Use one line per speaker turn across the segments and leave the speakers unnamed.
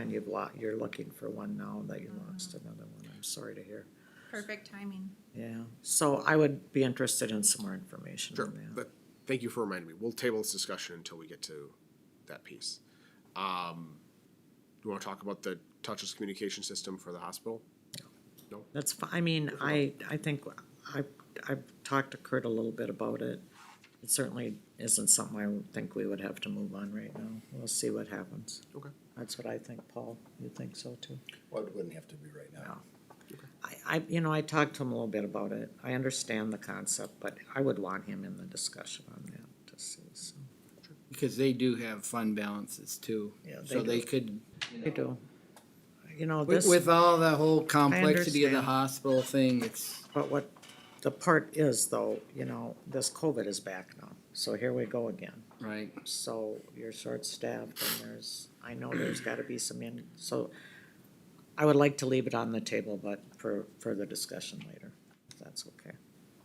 And you've lo, you're looking for one now that you lost another one. I'm sorry to hear.
Perfect timing.
Yeah, so I would be interested in some more information
Sure,
on that.
but thank you for reminding me. We'll table this discussion until we get to that piece. Um, you wanna talk about the touchless communication system for the hospital? No?
That's, fi- I mean, I, I think, I, I've talked to Kurt a little bit about it. It certainly isn't something I would think we would have to move on right now. We'll see what happens.
Okay.
That's what I think, Paul. You think so too?
Well, it wouldn't have to be right now.
I, I, you know, I talked to him a little bit about it. I understand the concept, but I would want him in the discussion on that to see, so.
Because they do have fund balances too.
Yeah,
So
they
they could,
I do. You know,
with,
this.
with all the whole complexity of the
understand.
hospital thing, it's,
But what the part is though, you know, this COVID is back now, so here we go again.
right,
So you're short-staffed and there's, I know there's gotta be some in, so I would like to leave it on the table, but for further discussion later, if that's okay.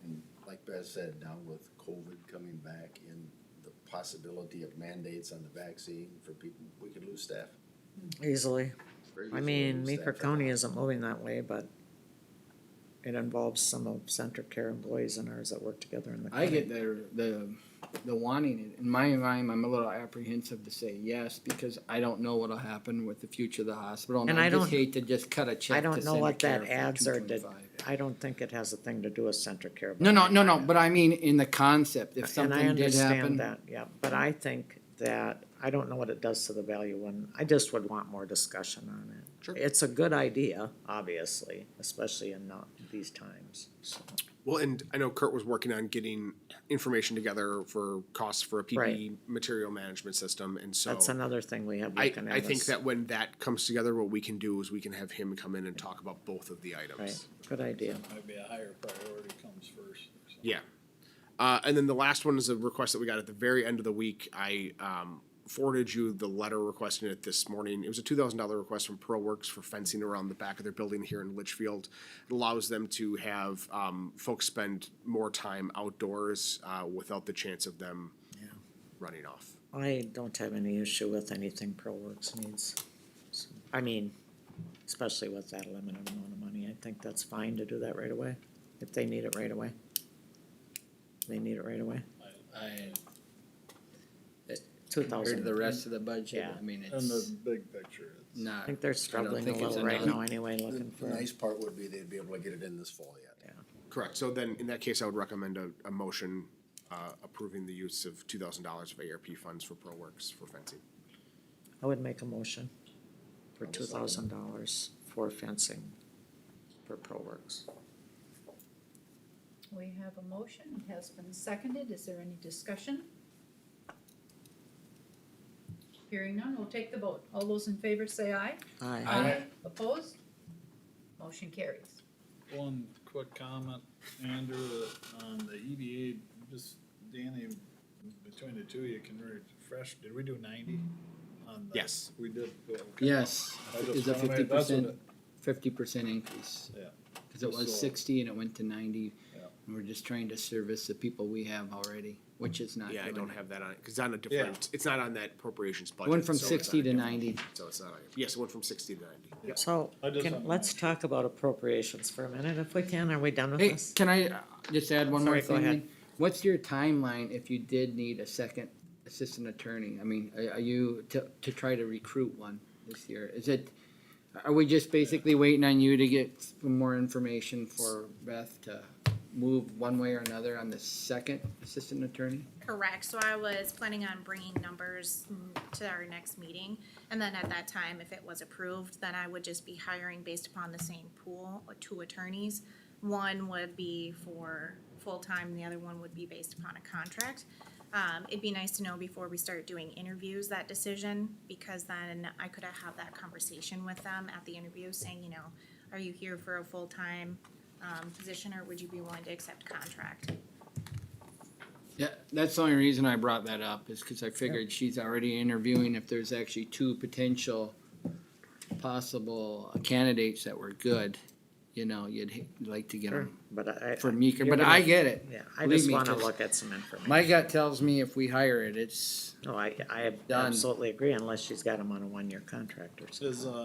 And like Beth said, now with COVID coming back and the possibility of mandates on the vaccine for people, we could lose staff.
Easily.
Very
I
easily
mean,
lose
Meeker
staff.
County isn't moving that way, but it involves some of Center Care employees and ours that work together in the
I
county.
get the, the, the wanting it. In my mind, I'm a little apprehensive to say yes, because I don't know what'll happen with the future of the hospital.
And I
just
don't-
Hate to just cut a check.
I
to
don't know
Center
what that
Care for
adds or did,
2.25.
I don't think it has a thing to do with Center Care. but
No, no,
I-
no, no, but I mean, in the concept, if
And I
something did
understand
happen,
that, yeah, but I think that, I don't know what it does to the value one, I just would want more discussion on it.
Sure.
It's a good idea, obviously, especially in not these times, so.
Well, and I know Kurt was working on getting information together for costs for a PPE material management system, and so
That's another thing we have
I,
looking at
I think
us.
that when that comes together, what we can do is we can have him come in and talk about both of the
Right,
items.
good idea,
Maybe a higher priority comes first. or something.
Yeah. Uh, and then the last one is a request that we got at the very end of the week. I um, forwarded you the letter requesting it this morning. It was a two thousand dollar request from Pearl Works for fencing around the back of their building here in Litchfield. It allows them to have um, folks spend more time outdoors uh, without the chance of them running off.
I don't have any issue with anything ProWorks needs. So, I mean, especially with that limited amount of money, I think that's fine to do that right away, if they need it right away. They need it right away,
I,
two
compared to
thousand.
the rest of the budget,
Yeah.
I mean,
In
it's
the big picture, it's
I
not.
think they're struggling a
think it's
little right
enough.
now anyway,
The
looking
the
for,
nice part would be they'd be able to get it in this fall yet.
Correct. So then, in that case, I would recommend a, a motion uh, approving the use of two thousand dollars of ARP funds for Pearl Works for fencing.
I would make a motion
Oh,
for two thousand dollars for fencing for ProWorks.
We have a motion, it has been seconded, is there any discussion? Hearing none, we'll take the vote, all those in favor say aye.
Aye.
Aye. Opposed? Motion carries.
one quick comment, Andrew, that on the EBA, just Danny, between the two of you can refresh, did we do ninety? on the-
Yes.
We did. okay.
Yes,
I just
is a
wanna
fifty
make- that's what
percent,
it-
fifty percent increase.
Yeah.
Cause it was
So-
sixty and it went to ninety,
Yeah.
and we're just trying to service the people we have already, which is not
Yeah, I
doing
don't
it.
have that on, because it's on a different, it's not on that appropriations budget.
Went from
so it's on
sixty
a
to
different-
ninety,
So it's not, on- yes, it went from sixty to ninety.
So,
I just
can,
don't
let's
know.
talk about appropriations for a minute, if we can, are we done with
hey,
this?
can I uh, just add one
Sorry,
more
go
thing?
ahead.
then? What's your timeline if you did need a second assistant attorney, I mean, are, are you, to, to try to recruit one this year, is it? Are we just basically waiting on you to get some more information for Beth to move one way or another on the second assistant attorney?
Correct, so I was planning on bringing numbers mm, to our next meeting, and then at that time, if it was approved, then I would just be hiring based upon the same pool, or two attorneys. One would be for full-time, the other one would be based upon a contract. Um, it'd be nice to know before we start doing interviews, that decision, because then I could have that conversation with them at the interview, saying, you know, are you here for a full-time, um, position, or would you be willing to accept contract?
Yeah, that's the only reason I brought that up is because I figured she's already interviewing if there's actually two potential possible candidates that were good. you know, you'd h- like to get
Sure,
them
But I. I-
for meeker,
you're
but
gonna-
I get it.
Yeah, I
Believe
just
me,
wanna
'cause
look at some information.
My gut tells me if we hire it, it's
No, I, I
Done.
absolutely agree unless she's got him on a one-year contract or something.
Is, uh,